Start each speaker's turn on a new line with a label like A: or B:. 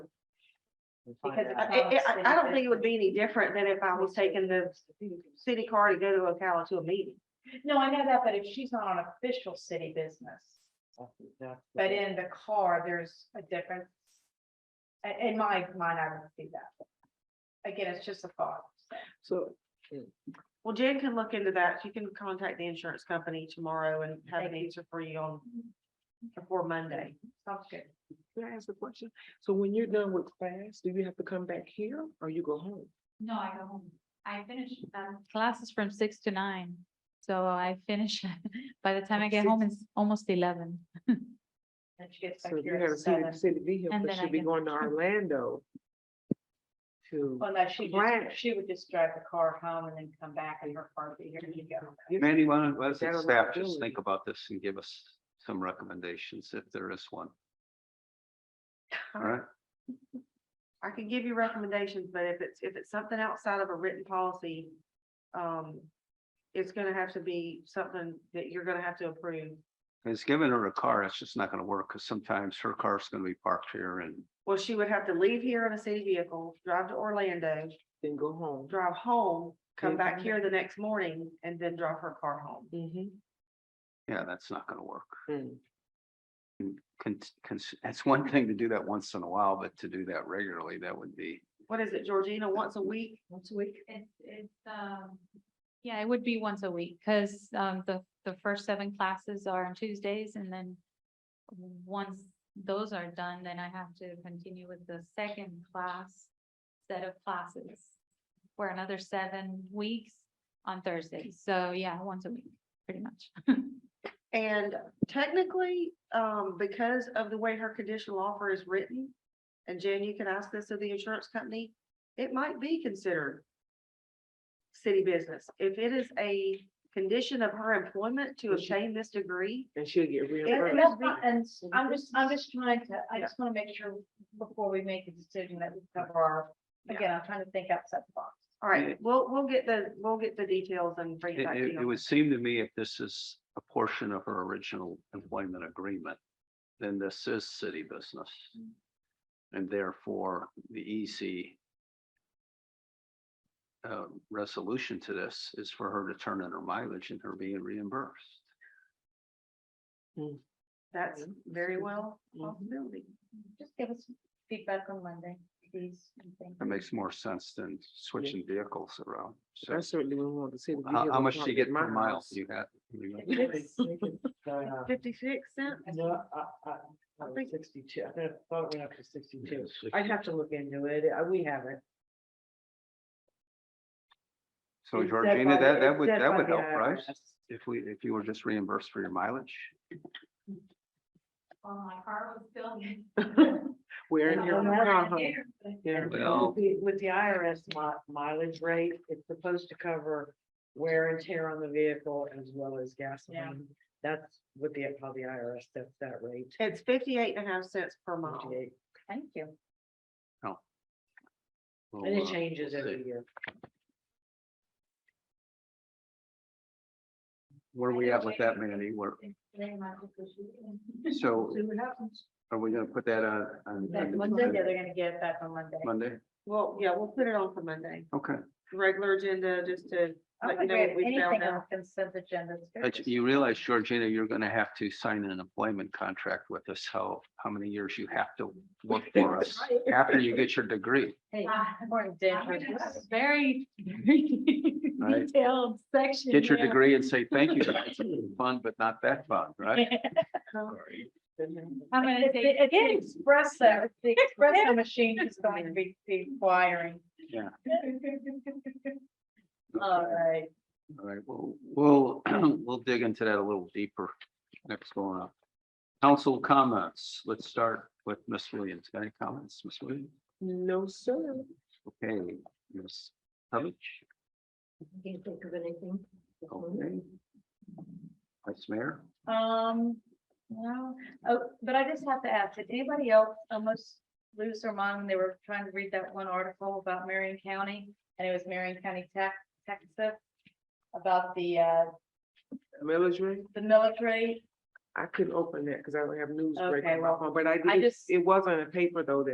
A: Because
B: Uh,
A: it's
B: I,
A: not
B: I- I don't
A: city
B: think it would be any different than if I was taking the
A: business.
B: city car to go to Ocala to a meeting.
A: No, I know that, but if she's not on official city business, but in the car, there's a difference. I- In, my mind, I would see that. Again, it's just a thought.
C: So,
B: Well, Jen can look into that. She can contact the insurance company tomorrow and have
A: Thank
B: an
A: you.
B: answer for you on before Monday.
A: Sounds good.
C: can I ask a question? So when you're done with class, do you have to come back here or you go home?
D: No, I go home. I finish, um, classes from six to nine. So I finish, by the time I
C: At
D: get home, it's almost eleven.
A: And she gets back
C: So you
A: here
C: have
A: at
C: a city,
A: seven.
C: city vehicle,
D: And
C: but
D: then I
C: she'd be
D: can-
C: going to Orlando. To,
A: Well, no, she
C: Right.
A: just, she would just drive the car home and then come back and her car would be here and you go.
E: Mandy, why don't, why
C: That
E: doesn't
C: was my
E: staff just
C: ability.
E: think about this and give us some recommendations if there is one, all right?
B: I can give you recommendations, but if it's, if it's something outside of a written policy, um, it's gonna have to be something that you're gonna have to approve.
E: It's giving her a car, it's just not gonna work, because sometimes her car's gonna be parked here and
B: Well, she would have to leave here in a city vehicle, drive to Orlando,
C: then go home.
B: drive home,
C: Then
B: come back
C: come
B: here the next morning, and then drive her car home.
C: Mm-hmm.
E: Yeah, that's not gonna work.
F: Mm-hmm.
E: Con- cons- It's one thing to do that once in a while, but to do that regularly, that would be,
B: What is it, Georgina, once a week?
C: Once a week.
D: It's, it's, um, yeah, it would be once a week, because, um, the, the first seven classes are on Tuesdays, and then once those are done, then I have to continue with the second class set of classes for another seven weeks on Thursdays. So, yeah, once a week, pretty much.
B: And technically, um, because of the way her conditional offer is written, and Jan, you can ask this of the insurance company, it might be considered city business. If it is a condition of her employment to
C: Well, she-
B: obtain this degree,
C: And she'll get
A: And
C: reimbursed.
A: that's not- and I'm just, I'm just trying to, I
B: Yeah.
A: just want to make sure before we make a decision that we cover our,
B: Yeah.
A: again, I'm trying to think outside the box.
B: all right, we'll, we'll get the, we'll get the details and bring it
E: it,
B: back to
E: it- it
B: you.
E: would seem to me if this is a portion of her original employment agreement, then this is city business. And therefore, the easy uh, resolution to this is for her to turn in her mileage and her being reimbursed.
B: That's very well a
C: Mm-hmm.
B: possibility.
A: Just give us feedback on Monday, please. and thank
E: That
A: you.
E: makes more sense than switching vehicles around. So
C: I certainly wouldn't want to see. the
E: how, how
C: vehicle
E: much do you
C: parked
E: get
C: at my
E: per mile?
C: house.
E: You got? you got-
A: Yes.
B: Fifty-six cents?
F: Uh, No, I, I, I
B: think-
F: was sixty-two, I thought- thought it went up to sixty-two.
E: Yes, if-
F: I'd have to look into it, uh, we haven't.
E: So
F: It's set
E: Georgina,
F: by the-
E: that, that
F: it's
E: would,
F: set
E: that
F: by
E: would
F: the
E: help, right?
F: IRS.
E: If we, if you were just reimbursed for your mileage?
D: Well, my car was filled.
C: Where in
F: I
C: your
F: don't know.
C: car, huh?
F: Yeah,
E: Well-
F: with the- with the IRS mi- mileage rate, it's supposed to cover wear and tear on the vehicle as well as gasoline. That's what the, how the IRS sets that rate.
B: It's fifty-eight and a half cents per mile.
F: 58,
A: Thank you.
E: Well,
F: And
E: uh,
F: it changes
E: we'll see.
F: every year.
E: Where are we at with that, Mandy? Where, so
F: See what happens.
E: are we gonna put that on, on
A: That
E: on
A: Monday, yeah, they're gonna get it back on Monday.
E: Monday?
B: Well, yeah, we'll put it on for Monday.
E: Okay.
B: Regular agenda, just to
A: I don't
B: let you
A: think
B: know
A: we have
B: what we found
A: Oh anything
B: out.
A: on consent agenda. It's very
E: But
A: just-
E: you realize, Georgina, you're gonna have to sign an employment contract with us, how, how many years you have to work for us after you get your degree.
A: Hey, morning, Dan.
D: Very, very
E: Right.
D: detailed section.
E: Get your
D: there.
E: degree and say, thank you, it's fun, but not that fun, right?
D: I'm gonna
A: It's
D: take.
A: the- it's the Espresso, it's the espresso machine is going to be requiring.
E: Yeah.
A: All right.
E: All right, well, we'll, we'll dig into that a little deeper next going up. Council comments, let's start with Miss Williams. Got any comments, Miss Williams?
C: No, sir.
E: Okay, Miss Hubbard? Can't think of anything. Okay. Vice Mayor?
A: Um, no, oh, but I just have to ask, did anybody else almost lose their mind when they were trying to read that one article about Marion County? And it was Marion County tax, Texas, about the, uh,
C: Military,
A: the military.
C: I couldn't open that because I don't have news break
A: Okay,
C: on my
A: well,
C: phone, but I
A: I
C: did,
A: just-
C: it was on a paper though that